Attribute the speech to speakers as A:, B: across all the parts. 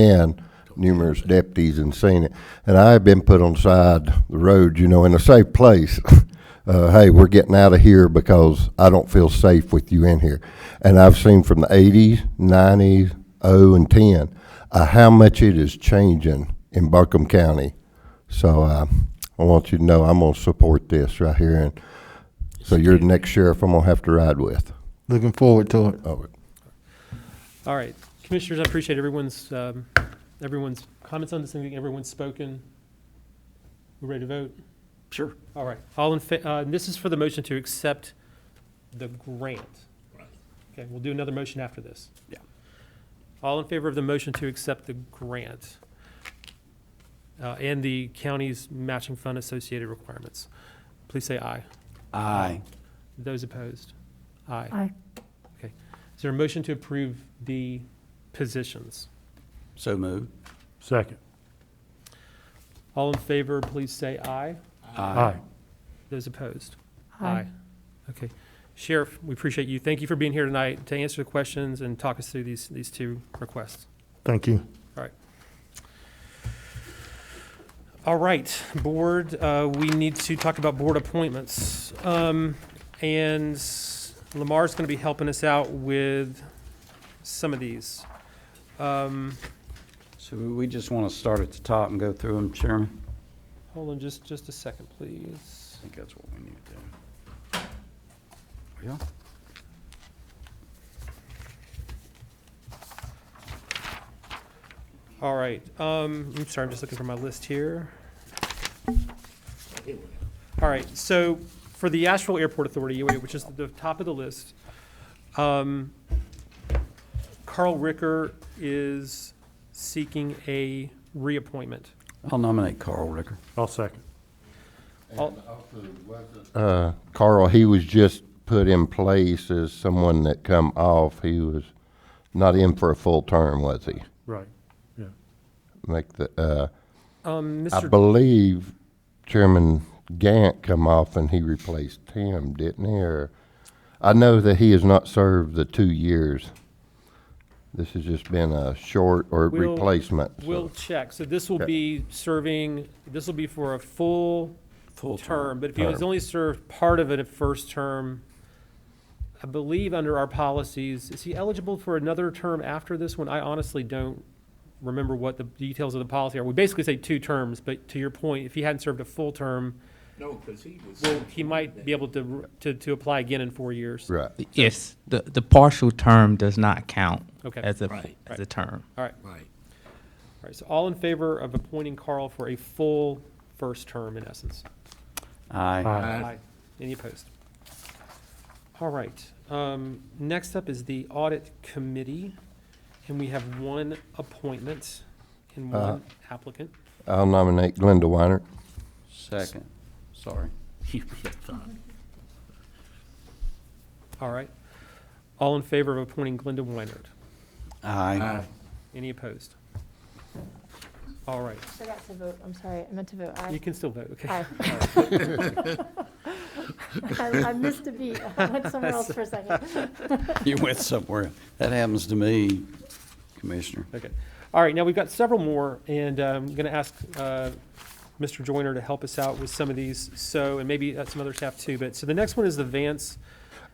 A: and numerous deputies and seen it. And I have been put on the side of the road, you know, in a safe place. Uh, hey, we're getting out of here because I don't feel safe with you in here. And I've seen from the eighties, nineties, oh, and ten, uh, how much it is changing in Buncombe County. So, uh, I want you to know I'm gonna support this right here and so you're the next sheriff I'm gonna have to ride with.
B: Looking forward to it.
A: Oh,
C: All right, commissioners, I appreciate everyone's, um, everyone's comments on this, and everyone's spoken. We ready to vote?
D: Sure.
C: All right, all in, fa- uh, and this is for the motion to accept the grant. Okay, we'll do another motion after this.
D: Yeah.
C: All in favor of the motion to accept the grant uh, and the county's matching fund associated requirements, please say aye.
D: Aye.
C: Those opposed? Aye.
E: Aye.
C: Okay. Is there a motion to approve the positions?
D: So moved.
F: Second.
C: All in favor, please say aye.
F: Aye.
C: Those opposed? Okay. Sheriff, we appreciate you. Thank you for being here tonight to answer the questions and talk us through these, these two requests.
B: Thank you.
C: All right, board, uh, we need to talk about board appointments. Um, and Lamar's gonna be helping us out with some of these. Um,
D: So we just want to start at the top and go through them, Chairman?
C: hold on just, just a second, please.
D: I think that's what we need to do. Yeah.
C: All right, um, I'm sorry, I'm just looking for my list here. All right, so for the Asheville Airport Authority, UAA, which is the top of the list, um, Carl Ricker is seeking a reappointment.
D: I'll nominate Carl Ricker.
F: I'll second.
A: Uh, Carl, he was just put in place as someone that come off. He was not in for a full term, was he?
F: Right. Yeah.
A: Make the, uh,
C: Um,
A: I
C: Mr.
A: believe Chairman Gant come off and he replaced him, didn't he? Or, I know that he has not served the two years. This has just been a short or
C: We'll-
A: replacement. so-
C: Will check, so this will
A: Okay.
C: be serving, this will be for a full
D: Full
C: term, but if he was
A: Term.
C: only served part of it at first term, I believe under our policies, is he eligible for another term after this one? I honestly don't remember what the details of the policy are. We basically say two terms, but to your point, if he hadn't served a full term,
G: No, because he was.
C: well, he might be able to, to, to apply again in four years.
A: Right.
H: Yes, the, the partial term does not count
C: Okay.
H: as a,
G: Right.
H: as a term.
G: Right.
C: All right, so all in favor of appointing Carl for a full first term in essence?
D: Aye.
F: Aye.
C: Aye. Any opposed? All right. um, Next up is the Audit Committee, and we have one appointment and one applicant.
A: I'll nominate Glenda Weiner.
D: Second. Sorry.
C: All right. All in favor of appointing Glenda Weinert?
D: Aye.
C: Any opposed? All right.
E: forgot to vote, I'm sorry, I meant to vote
C: You
E: aye.
C: can still vote, okay?
E: Aye. I I missed a beat, I went somewhere else for a second.
D: You went somewhere. That happens to me, Commissioner.
C: Okay. All right, now we've got several more, and um, I'm going to ask uh, Mr. Joyner to help us out with some of these, so, and maybe uh, some other staff too, but, so the next one is the Vance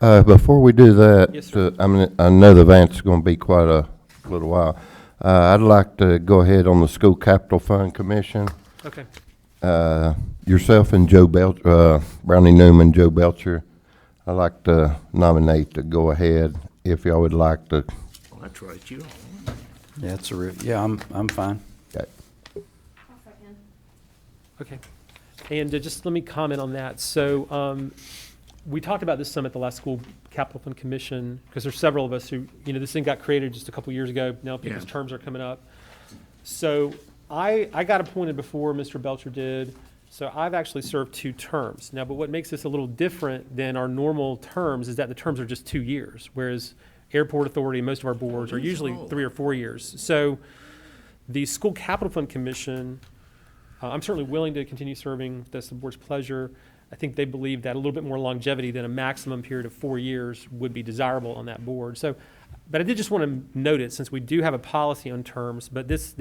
A: Uh, before we do that,
C: Yes, sir.
A: uh, I mean, I know the event's gonna be quite a little while. Uh, I'd like to go ahead on the School Capital Fund Commission.
C: Okay.
A: Uh, yourself and Joe Belcher, uh, Brownie Newman, Joe Belcher. I'd like to nominate to go ahead if y'all would like to.
G: Well, that's right, you.
D: Yeah, it's a, re- yeah, I'm, I'm fine.
A: Okay.
C: Okay. And uh, just let me comment on that. So um, we talked about this some at the last school capital fund commission, because there's several of us who, you know, this thing got created just a couple years ago. Now people's
G: Yeah.
C: terms are coming up. So I, I got appointed before Mr. Belcher did, so I've actually served two terms. Now, but what makes this a little different than our normal terms is that the terms are just two years, whereas airport authority and most of our boards are
G: Years
C: usually
G: old.
C: three or four years. So the school capital fund commission, uh, I'm certainly willing to continue serving, that's the board's pleasure. I think they believe that a little bit more longevity than a maximum period of four years would be desirable on that board. So But I did just want to note it, since we do have a policy on terms, but this,